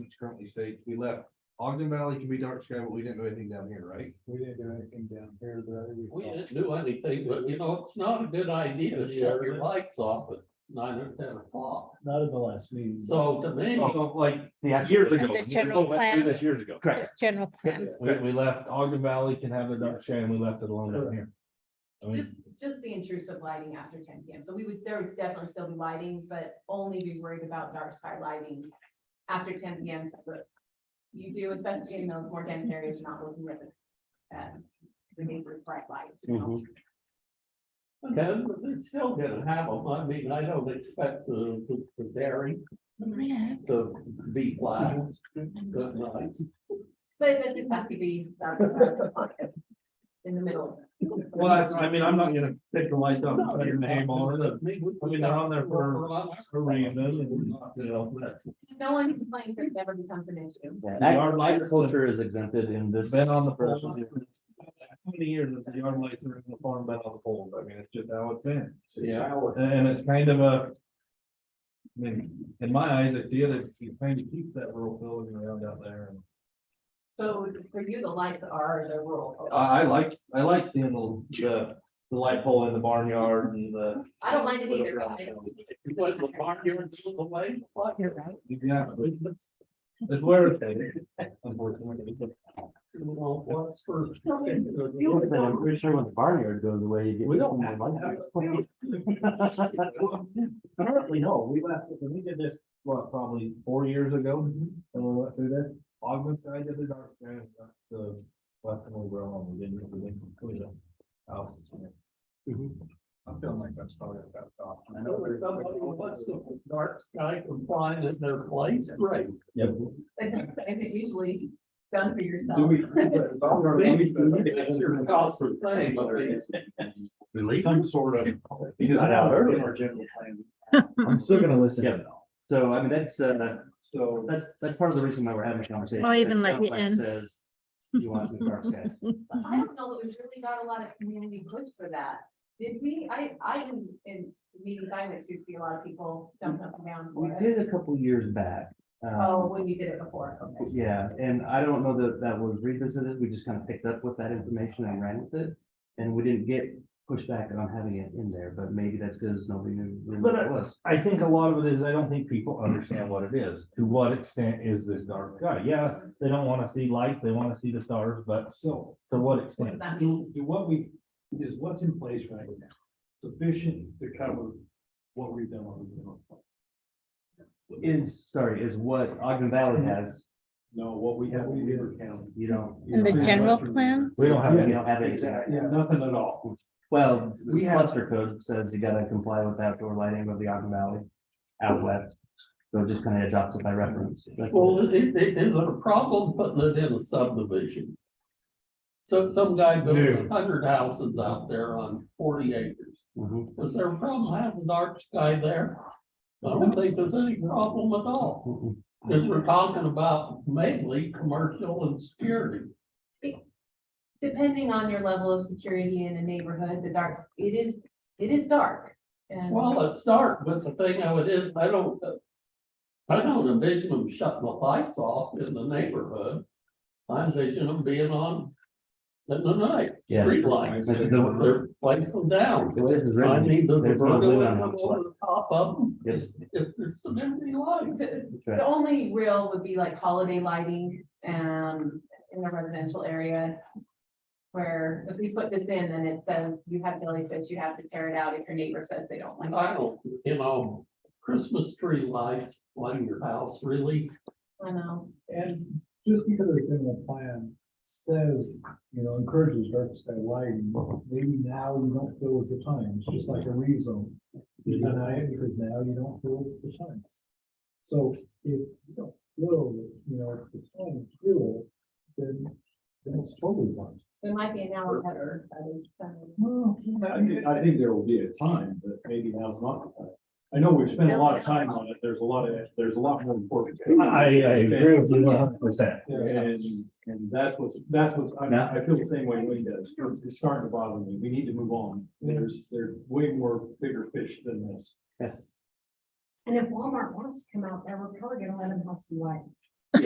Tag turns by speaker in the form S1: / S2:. S1: which currently states we left Ogden Valley can be dark sky, but we didn't do anything down here, right?
S2: We didn't do anything down here, but I think
S3: We didn't do anything, but you know, it's not a good idea to shut your lights off at nine or ten o'clock.
S4: Mm-hmm.
S2: Not at the last meeting.
S3: So to me,
S1: Oh, Like
S5: The actual-
S1: years ago.
S6: The general
S1: We went through
S6: plan.
S1: This years ago.
S5: Correct.
S6: General plan.
S1: We, we left Ogden Valley can have the dark sky and we left it alone down here. I mean,
S7: Just, just the intrusive lighting after ten PM. So we would, there would definitely still be lighting, but only be worried about dark sky lighting after ten PM. So but You do, especially in those more dense areas, you're not looking at the, um, the neighbor's bright lights. you know?
S3: then it's still gonna have them. I mean, I don't expect the, the- the dairy to be black. Good night.
S7: But that just has to be dark sky in the middle.
S4: Well, that's, I mean, I'm not gonna pick the lights up, and put your name on it, I mean, they're
S3: mean,
S4: on there for a reason, and, you know, that's
S7: If No one complains, it never becomes an issue.
S5: Ag- Agriculture is exempted in this.
S1: Been on the poles. How many years has the yard lights are in the farm been on the poles? I mean, it's just how it's been.
S3: Yeah.
S1: And it's kind of a. I mean, in my eyes, it's the other, you're trying to keep that rural building around out there. and-
S7: So for you, the lights are the rule.
S4: Uh,
S1: I, I like, I like seeing the, the, the light pole in the barnyard and the.
S7: I don't mind it either. but I-
S3: You went to the barnyard, took the light, what?
S6: You're right.
S1: Yeah, but it's- it's where it's at, unfortunately.
S3: You know, what's for-
S5: I'm pretty sure when the barnyard goes away, you get.
S3: We don't have that.
S1: Apparently, no, we left, when we did this, what, probably four years ago, and we went through this, August, I did the dark, sky, and that's the, left one we were on, we didn't, we didn't include them. Oh, yeah. I'm feeling like that's started that thought.
S3: I know there's somebody who wants to dark sky compliant at their place, right?
S7: But that's, I think usually done for yourself.
S3: Maybe your house is saying, but it's-
S5: Some sort of.
S1: You
S5: got out early.
S1: I'm still gonna listen.
S5: Yeah. So I mean, that's, uh,
S1: So.
S5: that's, that's part of the reason why we're having a conversation.
S6: I'll even let you
S5: Complex
S6: in.
S5: Says. You want some dark skies.
S7: But I don't know that we've really got a lot of community push for that. Did we? I, I, in- in meetings I went to, see a lot of people jumped up and down
S5: We
S7: for it.
S5: did a couple years back. um,
S7: Oh, when you did it before, okay.
S5: Yeah, and I don't know that that was revisited. We just kind of picked up with that information and ran with it. And we didn't get pushback on having it in there, but maybe that's because nobody knew really what
S2: uh,
S1: But,
S5: it was.
S1: I think a lot of it is, I don't think people understand what it is. To what extent is this dark sky? Yeah, they don't wanna see light, they wanna see the stars, but so, to what
S7: What does
S1: extent?
S7: that mean?
S2: Do, do what we, is what's in place right now sufficient to cover what we've done on the. general plan?
S5: Is, sorry, is what Ogden Valley has,
S2: No, what we have in Beaver County.
S5: you don't. you
S6: And the
S5: don't have-
S6: general plan,
S1: We don't have
S5: You
S1: any,
S5: don't have anything.
S2: Yeah, nothing at all.
S5: Well,
S2: We
S5: the
S2: have-
S5: cluster code says you gotta comply with outdoor lighting of the Ogden Valley out west. So it just kind of adopts it by reference. like-
S3: Well, it, it is a problem putting it in a subdivision. So some guy builds a hundred houses out there on forty acres.
S5: Mhm.
S3: Is there a problem having dark sky there? I don't think there's any problem at all,
S5: Mhm.
S3: because we're talking about mainly commercial and security.
S7: Depending on your level of security in a neighborhood, the dark, it is, it is dark. And
S3: Well, it's dark, but the thing of it is, I don't. uh, I don't envision them shutting the lights off in the neighborhood. I envision them being on in the night,
S5: Yeah.
S3: street lights,
S5: But the-
S3: they're lights them down.
S5: The way this is
S3: I
S5: written,
S3: need the
S5: There's no limit on how
S3: vertical
S5: much
S3: over the top of them,
S5: Yep.
S3: if if there's some empty lights.
S7: it's-
S5: it's
S7: The only real would be like holiday lighting, um, in a residential area. Where if we put this in, then it says you have jellyfish, you have to tear it out if your neighbor says they don't like
S3: I
S7: it.
S3: don't, you know, Christmas tree lights on your house, really,
S7: I know,
S2: And just because the general plan says, you know, encourages dark sky lighting, maybe now you don't feel it's the time, it's just like a rezone. You deny it because now you don't feel it's the time. So if you don't feel, that, you know, it's the time to do it, then, then it's totally fine.
S7: there might be an hour better, that is, um,
S2: Well, I think, I think there will be a time, but maybe now's not the time. I know we've spent a lot of time on it, there's a lot of, there's a lot more important.
S1: I, I agree with you one hundred percent.
S2: And, and that's what's, that's what's, I, I feel the same way Wayne does, It's- it's starting to bother me, we need to move on, there's, there's way more bigger fish than this.
S7: And if Walmart wants to come out there, we're probably gonna let them have some lights.